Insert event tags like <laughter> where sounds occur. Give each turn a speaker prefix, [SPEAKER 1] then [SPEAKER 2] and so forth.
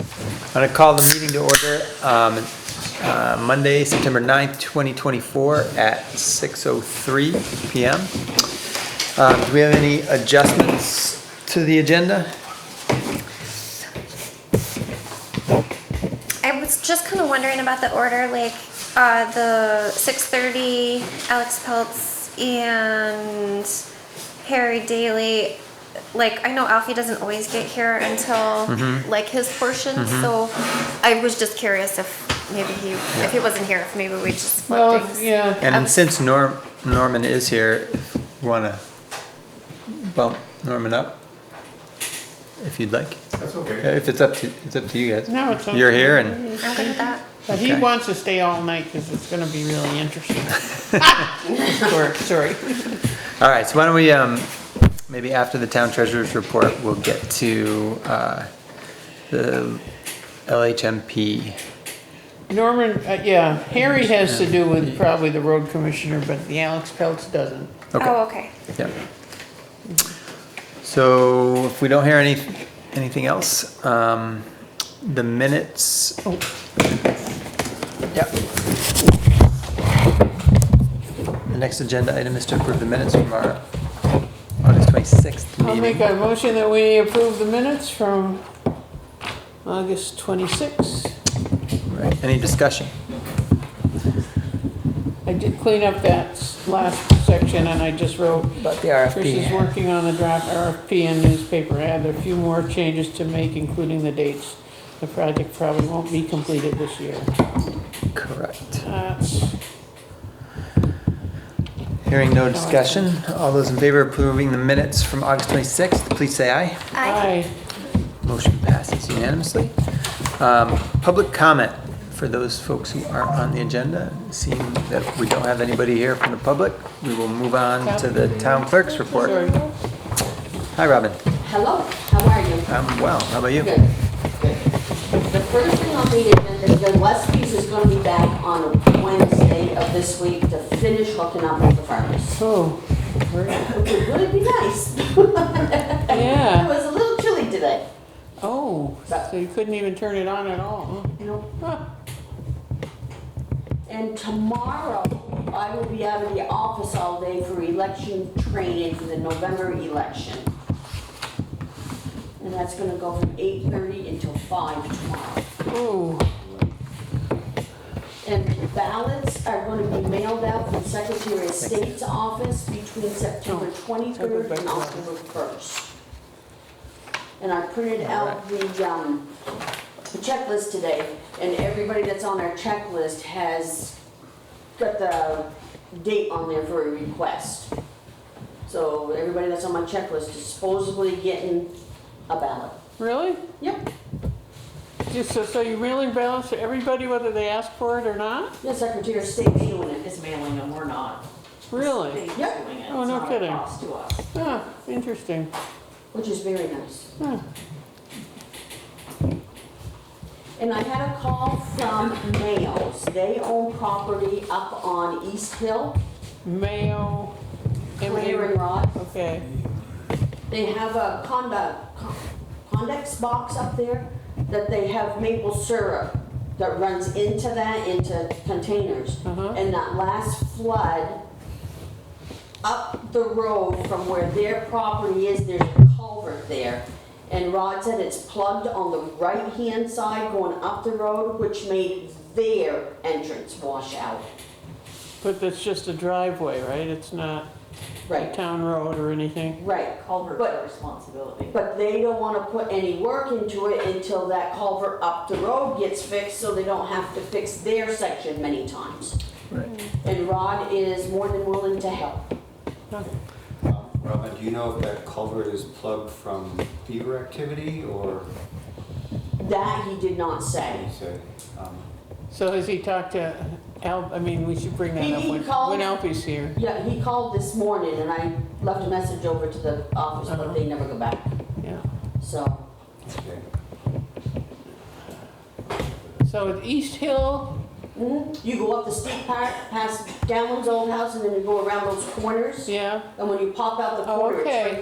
[SPEAKER 1] I'm going to call the meeting to order um, uh, Monday, September 9th, 2024 at 6:03 PM. Um, Do we have any adjustments to the agenda?
[SPEAKER 2] I was just kind of wondering about the order, like uh, the 6:30, Alex Peltz and Harry Daly. Like I know Alfie doesn't always get here until like his portion, so I was just curious if maybe he, if he wasn't here, if maybe we just split
[SPEAKER 3] Well,
[SPEAKER 2] things.
[SPEAKER 3] yeah,
[SPEAKER 2] Um,
[SPEAKER 1] And since Norm, Norman is here, want to bump Norman up? If you'd like.
[SPEAKER 4] That's okay.
[SPEAKER 1] If it's up to, it's up to you guys.
[SPEAKER 3] No, it's
[SPEAKER 1] You're
[SPEAKER 3] okay.
[SPEAKER 1] here and,
[SPEAKER 2] I'm good with that.
[SPEAKER 3] but he
[SPEAKER 1] Okay.
[SPEAKER 3] wants to stay all night because it's gonna be really
[SPEAKER 1] <laughs>
[SPEAKER 3] interesting. Sorry, sorry.
[SPEAKER 1] all right, so why don't we, um, maybe after the town treasurer's report, we'll get to, uh, the LHMP.
[SPEAKER 3] Norman, uh, yeah, Harry has to do with probably the road commissioner, but the Alex Peltz doesn't.
[SPEAKER 1] Okay,
[SPEAKER 2] Oh, okay.
[SPEAKER 1] yeah. So if we don't hear any, anything else, um, the minutes. Oh. Yep. The next agenda item is to approve the minutes from our August 26th
[SPEAKER 3] I'll make
[SPEAKER 1] meeting.
[SPEAKER 3] a motion that we approve the minutes from August twenty-sixth.
[SPEAKER 1] Right, Any discussion?
[SPEAKER 3] I did clean up that s- last section and I just wrote.
[SPEAKER 1] About the RFP.
[SPEAKER 3] Trish is working on the draft RFP and newspaper ad. There are a few more changes to make, including the dates. The project probably won't be completed this year.
[SPEAKER 1] Correct.
[SPEAKER 3] That's
[SPEAKER 1] Hearing no discussion, all those in favor of approving the minutes from August 26th, please say aye.
[SPEAKER 2] I
[SPEAKER 3] Aye.
[SPEAKER 1] Motion passes unanimously. Um, Public comment for those folks who aren't on the agenda. Seeing that we don't have anybody here from the public, we will move on to the town clerk's report.
[SPEAKER 3] Sorry.
[SPEAKER 1] Hi, Robin.
[SPEAKER 5] Hello, how are you?
[SPEAKER 1] I'm well. How about you?
[SPEAKER 5] Good. Good. The first thing on the agenda is that Westby's is going to be back on Wednesday of this week to finish hooking up with the farmers. <laughs>
[SPEAKER 3] Oh, great.
[SPEAKER 5] Which would really be nice. <laughs> It
[SPEAKER 3] yeah.
[SPEAKER 5] was a little chilly today.
[SPEAKER 3] Oh, so you couldn't even turn it on at all?
[SPEAKER 5] you know.
[SPEAKER 3] Huh.
[SPEAKER 5] And tomorrow, I will be out of the office all day for election training for the November election. And that's going to go from 8:30 until 5 tomorrow.
[SPEAKER 3] Oh,
[SPEAKER 5] And ballots are going to be mailed out from Secretary of State's office between September 23rd and October 1st. And I printed out the um, checklist today, and everybody that's on our checklist has got the date on there for a request. So everybody that's on my checklist is supposedly getting a ballot.
[SPEAKER 3] really?
[SPEAKER 5] Yep,
[SPEAKER 3] Just so, so you really balance everybody whether they ask for it or not?
[SPEAKER 5] the Secretary of State's doing it, is mailing them, we're not.
[SPEAKER 3] Really?
[SPEAKER 5] Yep.
[SPEAKER 3] Oh, no kidding. Huh, interesting.
[SPEAKER 5] Which is very nice.
[SPEAKER 3] Huh.
[SPEAKER 5] And I had a call from Nails. They own property up on East Hill,
[SPEAKER 3] Mayo.
[SPEAKER 5] Clear and Rod.
[SPEAKER 3] Okay.
[SPEAKER 5] They have a conda- con- condex box up there that they have maple syrup that runs into that, into containers.
[SPEAKER 3] Uh-huh.
[SPEAKER 5] And that last flood, up the road from where their property is, there's a culvert there. And Rod said it's plugged on the right-hand side going up the road, which made their entrance wash out.
[SPEAKER 3] But that's just a driveway, right? It's not a
[SPEAKER 5] Right,
[SPEAKER 3] town road or anything?
[SPEAKER 5] right.
[SPEAKER 6] culvert's
[SPEAKER 5] But-
[SPEAKER 6] our responsibility.
[SPEAKER 5] But they don't wanna put any work into it until that culvert up the road gets fixed, so they don't have to fix their section many times.
[SPEAKER 1] Right.
[SPEAKER 5] And Rod is more than willing to help.
[SPEAKER 7] Um, Robin, do you know if that culvert is plugged from beaver activity or,
[SPEAKER 5] That he did not say.
[SPEAKER 7] you said, um,
[SPEAKER 3] So has he talked to Al, I mean, we should bring that
[SPEAKER 5] He-
[SPEAKER 3] up
[SPEAKER 5] he
[SPEAKER 3] when,
[SPEAKER 5] called-
[SPEAKER 3] when Alfie's here.
[SPEAKER 5] Yeah, he called this morning and I left a message over to the office, but they never go back,
[SPEAKER 3] Yeah.
[SPEAKER 5] so.
[SPEAKER 7] okay.
[SPEAKER 3] So at East Hill,
[SPEAKER 5] mhm. You go up the steep part, past Downland's old house, and then you go around those corners.
[SPEAKER 3] yeah?
[SPEAKER 5] And when you pop out the
[SPEAKER 3] Oh,
[SPEAKER 5] corner, it's
[SPEAKER 3] okay.
[SPEAKER 5] right